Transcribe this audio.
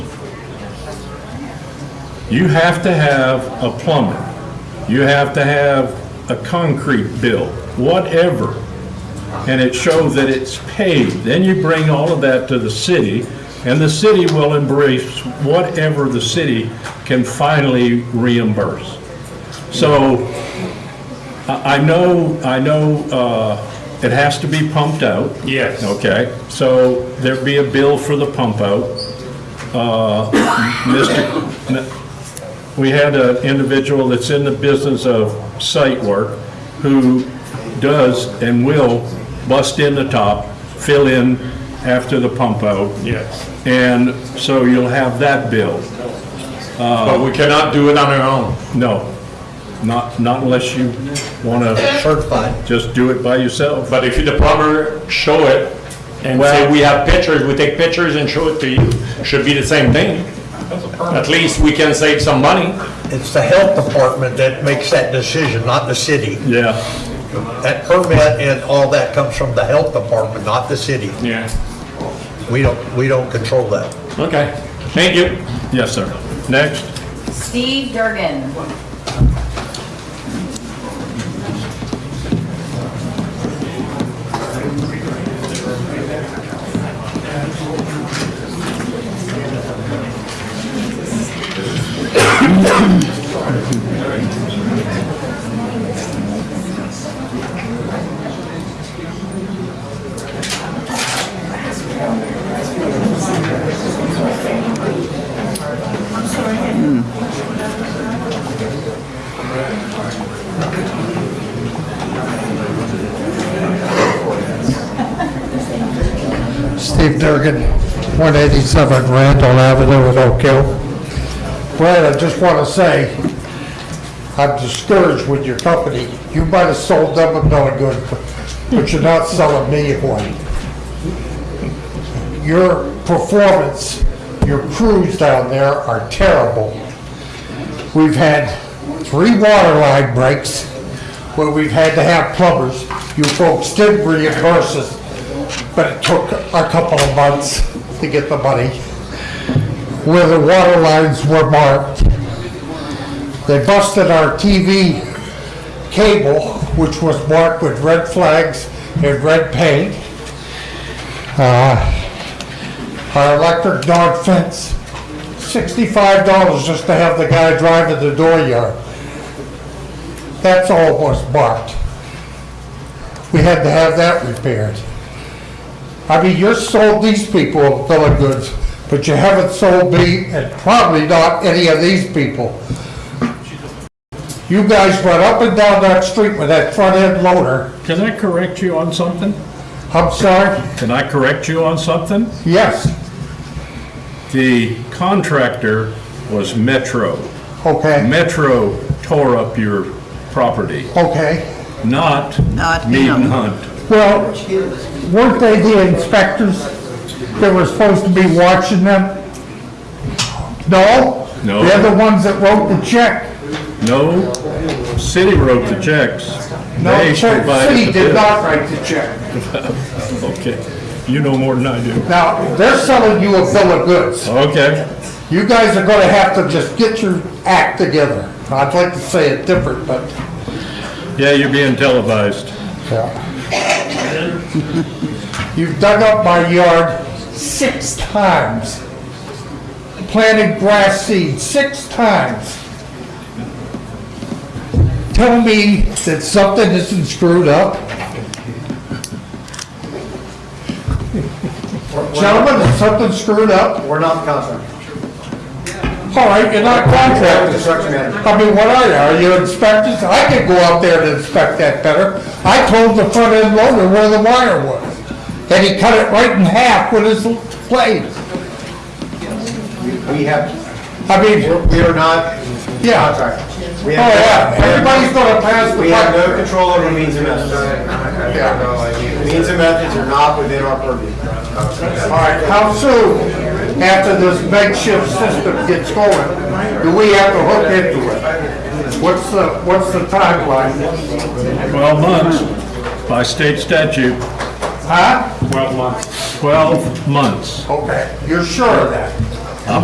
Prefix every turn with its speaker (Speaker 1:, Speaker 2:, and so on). Speaker 1: You have to have a plumber, you have to have a concrete bill, whatever, and it shows that it's paid. Then you bring all of that to the city, and the city will embrace whatever the city can finally reimburse. So I I know, I know uh, it has to be pumped out.
Speaker 2: Yes.
Speaker 1: Okay, so there'd be a bill for the pump out. Uh, Mr., we had an individual that's in the business of site work who does and will bust in the top, fill in after the pump out.
Speaker 2: Yes.
Speaker 1: And so you'll have that bill.
Speaker 2: But we cannot do it on our own.
Speaker 1: No, not, not unless you want to
Speaker 3: certified.
Speaker 1: just do it by yourself.
Speaker 2: But if the plumber show it and say,
Speaker 1: Well-
Speaker 2: we have pictures, we take pictures and show it to you, should be the same thing. At least we can save some money.
Speaker 3: It's the health department that makes that decision, not the city.
Speaker 1: Yeah.
Speaker 3: That permit and all that comes from the health department, not the city.
Speaker 2: Yeah.
Speaker 3: We don't, we don't control that.
Speaker 2: Okay, thank you.
Speaker 1: Yes, sir. Next.
Speaker 4: Steve Durgan.
Speaker 5: Steve Durgan, 187 Randall Avenue in Oak Hill. Brad, I just want to say, I'm discouraged with your company. You might have sold them another good, but you're not selling me one. Your performance, your crews down there are terrible. We've had three water line breaks where we've had to have plumbers. You folks did reimburse us, but it took a couple of months to get the money. Where the water lines were marked. They busted our TV cable, which was marked with red flags and red paint. Uh, Our electric dog fence, sixty-five dollars just to have the guy drive to the dooryard. That's all was marked. We had to have that repaired. I mean, you sold these people a bill of goods, but you haven't sold me, and probably not any of these people. You guys went up and down that street with that front end loader.
Speaker 1: Can I correct you on something?
Speaker 5: I'm sorry?
Speaker 1: Can I correct you on something?
Speaker 5: Yes,
Speaker 1: The contractor was Metro.
Speaker 5: okay,
Speaker 1: Metro tore up your property,
Speaker 5: okay.
Speaker 1: not
Speaker 6: Not
Speaker 1: Mead and
Speaker 6: him.
Speaker 1: Hunt.
Speaker 5: Well, weren't they the inspectors that were supposed to be watching them? No?
Speaker 1: No.
Speaker 5: They're the ones that wrote the check.
Speaker 1: No, city wrote the checks.
Speaker 5: No,
Speaker 1: They
Speaker 5: the check-
Speaker 1: provided
Speaker 5: city
Speaker 1: the
Speaker 5: did
Speaker 1: bill.
Speaker 5: not write the check.
Speaker 1: Okay, you know more than I do.
Speaker 5: Now, they're selling you a bill of goods.
Speaker 1: Okay,
Speaker 5: You guys are gonna have to just get your act together. I'd like to say it different, but,
Speaker 1: yeah, you're being televised.
Speaker 5: yeah. You've dug up my yard six times. Planted grass seed six times. Tell me that something isn't screwed up. Gentlemen, is something screwed up?
Speaker 3: We're not contractors.
Speaker 5: All right, you're not contractors.
Speaker 3: Construction manager.
Speaker 5: I mean, what are you, are you inspectors? I could go out there and inspect that better. I told the front end loader where the wire was, and he cut it right in half with his blade.
Speaker 3: We have,
Speaker 5: I mean, oh
Speaker 3: we are not
Speaker 5: Yeah. Oh,
Speaker 3: contractors. We have-
Speaker 5: yeah, everybody's gonna pass the
Speaker 3: We have no
Speaker 5: buck.
Speaker 3: control over means and methods. Means and methods are not within our purview.
Speaker 5: All right, how soon after this makeshift system gets going, do we have to hook into it? What's the, what's the timeline?
Speaker 1: 12 months by state statute,
Speaker 5: Huh?
Speaker 1: 12 months.
Speaker 5: Okay, you're sure of that?